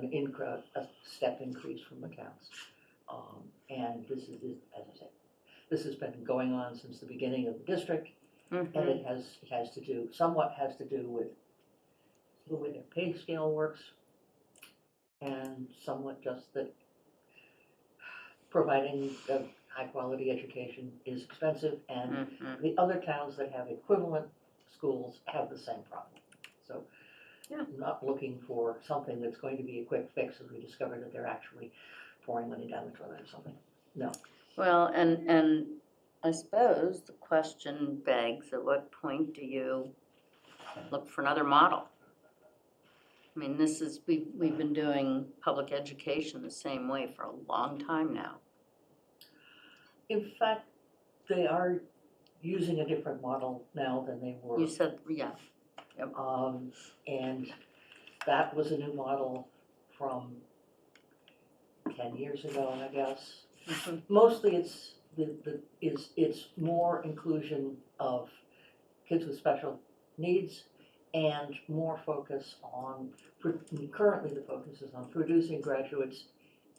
an incre, a step increase from accounts. Um, and this is, this- as I said, this has been going on since the beginning of the district, and Mhm. it has, it has to do, somewhat has to do with the way their pay scale works, and somewhat just that providing a high-quality education is expensive, and Mhm. the other towns that have equivalent schools have the same problem. So, Yeah. not looking for something that's going to be a quick fix if we discover that they're actually pouring money down the toilet or something. Well, and, and I suppose the question begs, at what point do you look for another model? I mean, this is, we, we've been doing public education the same way for a long time now. In fact, they are using a different model now than they were. You said, yeah, Um, and that was a new model from ten years ago, I guess. Mhm. Mostly it's, the, the, is, it's more inclusion of kids with special needs and more focus on, pro- currently the focus is on producing graduates,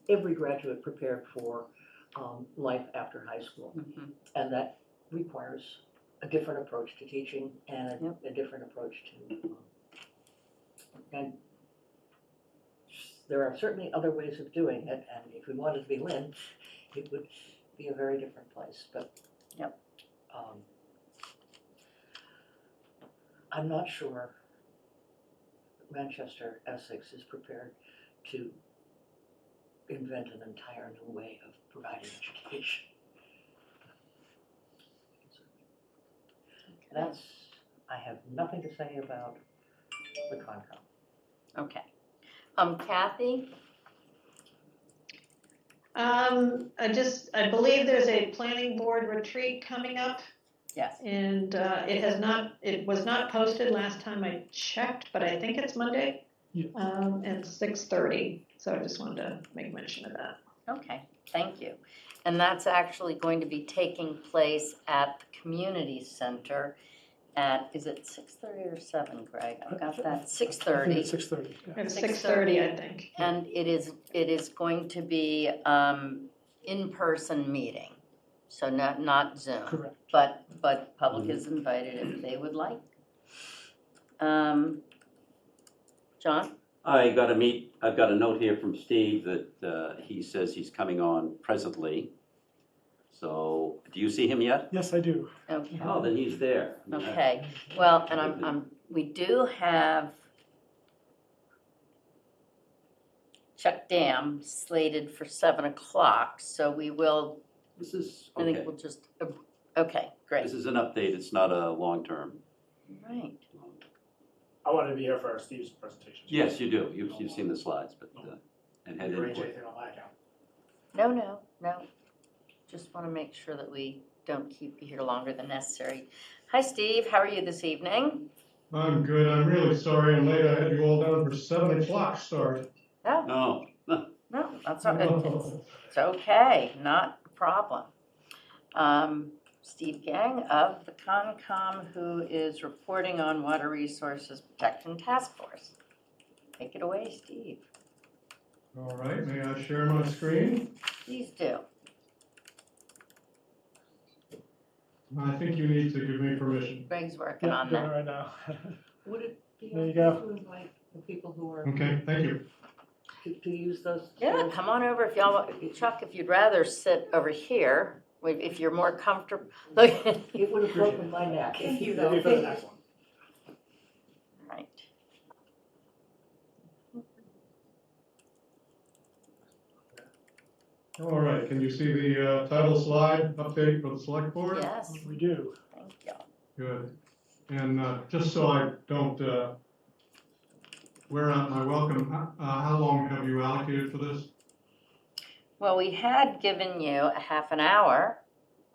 every graduate prepared for, um, life after high school. Mhm. And that requires a different approach to teaching and Yep. a, a different approach to. um, And there are certainly other ways of doing it, and if we wanted to be Lynn, it would be a very different place, but. Yep. um, I'm not sure Manchester Essex is prepared to invent an entire new way of providing education. That's, I have nothing to say about the Concom. okay. Um, Kathy? Um, I just, I believe there's a planning board retreat coming up Yes. and, uh, it has not, it was not posted last time I checked, but I think it's Monday. Yeah. Um, and six thirty, so I just wanted to make mention of that. Okay, thank you. And that's actually going to be taking place at the community center at, is it six thirty or seven, Greg? I've got that, six thirty. Six thirty, yeah. It's 6:30. six thirty, I think. And it is, it is going to be um, in-person meeting, so not, not Zoom. Correct. But, but public is invited if they would like. Um, John? I got a meet, I've got a note here from Steve that uh, he says he's coming on presently. So, do you see him yet? Yes, I do. Okay. Oh, then he's there. Okay, well, and I'm, I'm, we do have Chuck Dam slated for seven o'clock, so we will, This is, I think okay, we'll just, okay, great, this is an update, it's not a long-term. right. I wanted to be here for Steve's presentation. Yes, you do, you've, you've seen the slides, but, uh, and had Arrange input. anything on my account. No, no, no. Just want to make sure that we don't keep you here longer than necessary. Hi, Steve. How are you this evening? I'm good. I'm really sorry I'm late. I had you all down for seven o'clock start. No, No, Oh, no, that's not good. It's, it's okay, not a problem. Um, Steve Gang of the Concom, who is reporting on Water Resources Protection Task Force. Take it away, Steve. All right, may I share my screen? Please do. I think you need to give me permission. Greg's working Yeah, on doing it that. right now. Would it be There you Mm. okay to invite the people who are, Okay, thank you. to, to use those? Yeah, come on over if y'all, want- Chuck, if you'd rather sit over here, if you're more comfortable. Look, It would have broken my neck if you That'll be don't for the think. next one. Right. All right, can you see the uh, title slide update for the select board? Yes, We do. thank you. Good. And uh, just so I don't uh, wear out my welcome, h- uh, how long have you allocated for this? Well, we had given you a half an hour.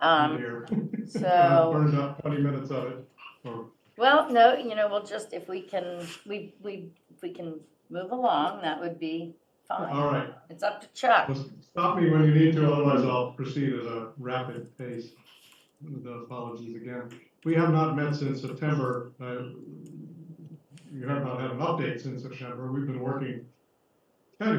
Um, Here. so, Burned up twenty minutes of it, or well, no, you know, we'll just, if we can, we, we, if we can move along, that would be All fine. right, It's up to Chuck. Well, stop me when you need to, otherwise I'll proceed at a rapid pace. The apologies again. We have not met since September. Uh, You have not had an update since September. We've been working